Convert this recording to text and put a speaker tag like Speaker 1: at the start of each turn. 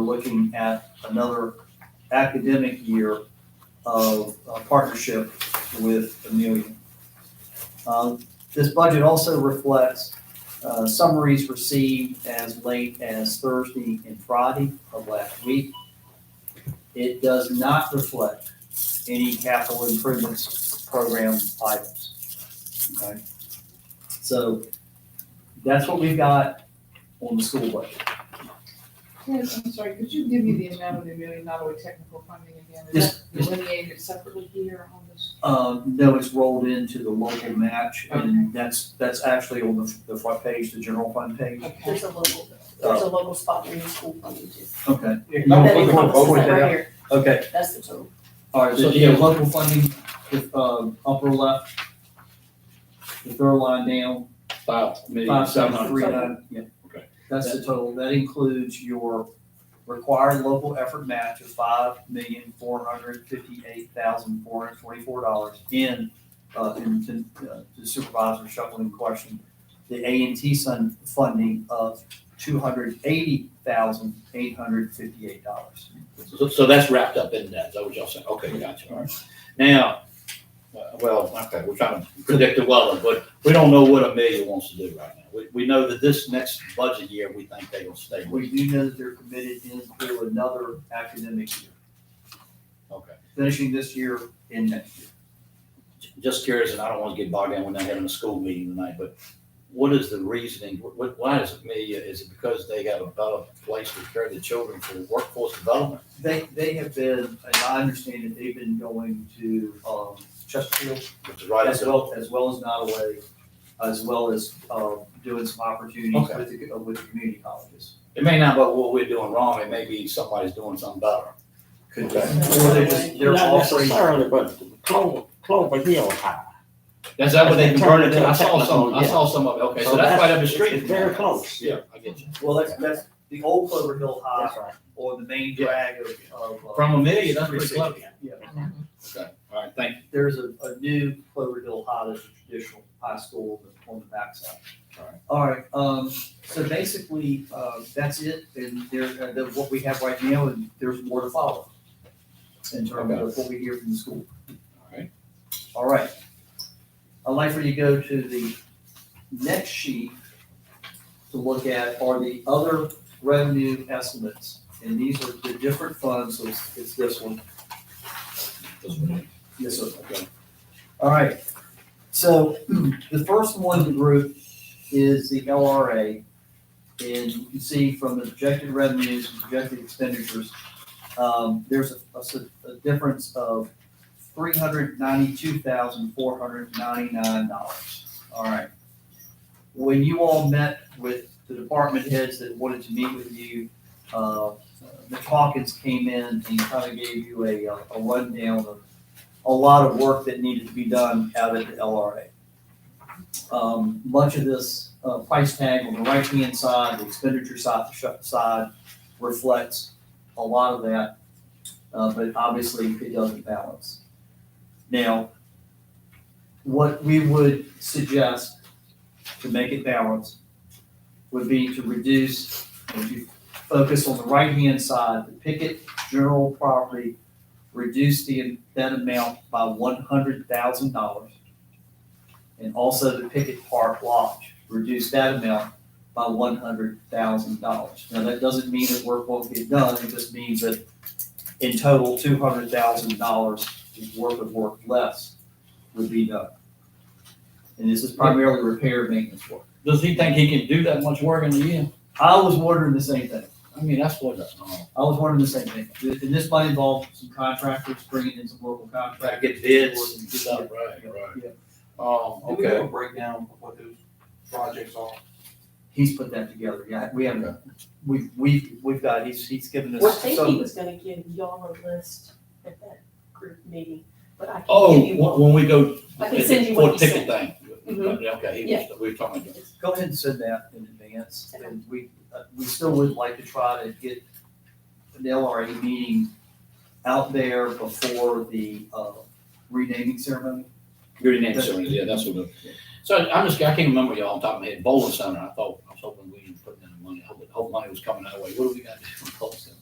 Speaker 1: looking at another academic year of uh, partnership with Amelia. Uh, This budget also reflects uh, summaries received as late as Thursday and Friday of last week. It does not reflect any capital improvements program items. Okay? So that's what we've got on the school budget.
Speaker 2: Yes, I'm sorry, could you give me the amount of the million dollar technical funding again?
Speaker 1: Yes,
Speaker 2: Is that delineated separately here on this?
Speaker 1: Uh, no, it's rolled into the local match, and that's, that's actually on the, the front page, the general fund page.
Speaker 2: Okay.
Speaker 3: There's a local, there's a local spot where your school funding is.
Speaker 1: Okay,
Speaker 3: That
Speaker 1: put
Speaker 3: is
Speaker 1: the-
Speaker 3: on the
Speaker 1: I'll put
Speaker 3: side
Speaker 1: that
Speaker 3: right
Speaker 1: up.
Speaker 3: here.
Speaker 1: okay,
Speaker 3: That's the total.
Speaker 1: all right, so yeah, local funding, the, um, upper left, the third line down,
Speaker 4: Five million,
Speaker 1: five
Speaker 4: seven
Speaker 1: seven
Speaker 4: hundred.
Speaker 1: three nine, yeah.
Speaker 4: Okay.
Speaker 1: That's the total, that includes your required local effort match of five million, four hundred fifty-eight thousand, four hundred twenty-four dollars in, uh, in, in, uh, the supervisor shuffling question, the A and T sun funding of two hundred eighty thousand, eight hundred fifty-eight dollars.
Speaker 4: So, so that's wrapped up in that, is that what y'all said? Okay, gotcha, all right. Now, uh, well, okay, we're trying to predict the weather, but we don't know what Amelia wants to do right now. We, we know that this next budget year, we think they will stay with,
Speaker 1: We do know that they're committed into another academic year,
Speaker 4: okay.
Speaker 1: finishing this year and next year.
Speaker 4: J- Just curious, and I don't want to get bogged down, we're not having a school meeting tonight, but what is the reasoning? Wh- wh- why is Amelia, is it because they got a better place to care the children for workforce development?
Speaker 1: They, they have been, and I understand that they've been going to, um, Chesterfield
Speaker 4: Which is right up
Speaker 1: as
Speaker 4: the-
Speaker 1: well, as well as Nottaway, as well as, um, doing some opportunities
Speaker 4: Okay.
Speaker 1: with the, uh, with the community colleges.
Speaker 4: It may not be what we're doing wrong, it may be somebody's doing something better.
Speaker 1: Could be,
Speaker 4: Okay.
Speaker 1: or they're just, they're
Speaker 5: Not
Speaker 1: offering,
Speaker 5: necessarily, but Clover, Clover Hill High.
Speaker 4: That's that what they converted to, I saw some, I
Speaker 5: Yeah.
Speaker 4: saw some of it, okay, so that's right up the street.
Speaker 5: It's very close.
Speaker 4: Yeah, I get you.
Speaker 1: well, that's, that's the old Clover Hill High
Speaker 5: That's right.
Speaker 1: or the main drag of, of. uh,
Speaker 4: From a million, that's pretty close.
Speaker 1: Yeah,
Speaker 4: Okay, all right, thank you.
Speaker 1: there's a, a new Clover Hill High, that's a traditional high school on the- on the backside.
Speaker 4: Alright.
Speaker 1: All right, um, so basically, uh, that's it, and there, uh, the- what we have right now, and there's more to follow in terms of what we hear from the school.
Speaker 4: All right.
Speaker 1: All right. I'd like for you to go to the next sheet to look at are the other revenue estimates. And these are the different funds, so it's, it's this one.
Speaker 4: This one.
Speaker 1: Yes, sir.
Speaker 4: Okay.
Speaker 1: All right, so the first one in the group is the LRA. And you can see from the projected revenues and projected expenditures, um, there's a, a s- a difference of three hundred ninety-two thousand, four hundred ninety-nine dollars. All right. When you all met with the department heads that wanted to meet with you, uh, Mitch Hawkins came in and kind of gave you a, uh, a rundown of a lot of work that needed to be done out at the LRA. Um, much of this, uh, price tag on the right-hand side, the expenditure side, the shut side reflects a lot of that, uh, but obviously it doesn't balance. Now, what we would suggest to make it balance would be to reduce, if you focus on the right-hand side, the picket, general property, reduce the, that amount by one hundred thousand dollars. And also the Pickett Park Lodge, reduce that amount by one hundred thousand dollars. Now, that doesn't mean that work won't get done, it just means that in total, two hundred thousand dollars worth of work less would be done. And this is primarily repair and maintenance work.
Speaker 4: Does he think he can do that much work in a year?
Speaker 1: I was wondering the same thing.
Speaker 4: I mean, that's what, oh,
Speaker 1: I was wondering the same thing. And this might involve some contractors bringing in some local
Speaker 4: try to
Speaker 1: contractors.
Speaker 4: get bids and stuff, right,
Speaker 1: Yeah.
Speaker 4: right. Um,
Speaker 6: Do we have
Speaker 4: okay,
Speaker 6: a breakdown of what those projects are?
Speaker 1: He's put that together, yeah, we haven't,
Speaker 4: Okay.
Speaker 1: we've, we've, we've got, he's, he's given
Speaker 3: I
Speaker 1: us
Speaker 3: think he
Speaker 1: some,
Speaker 3: was gonna give y'all a list at that group meeting, but I
Speaker 4: oh,
Speaker 3: can give you
Speaker 4: wh-
Speaker 3: one.
Speaker 4: when we go
Speaker 3: I
Speaker 4: for
Speaker 3: can send you what
Speaker 4: the
Speaker 3: he
Speaker 4: ticket thing.
Speaker 3: Mhm.
Speaker 4: Okay, he was, we were talking about.
Speaker 1: go ahead and send that in advance, and we, uh, we still would like to try to get an LRA meeting out there before the, uh, renaming ceremony.
Speaker 4: Your name, sir, yeah, that's what it is. So I'm just, I can't remember y'all on top of my head, bowling center, I thought, I was hoping we were putting in the money, I hope, hope money was coming that way, what do we got to do for bowling center?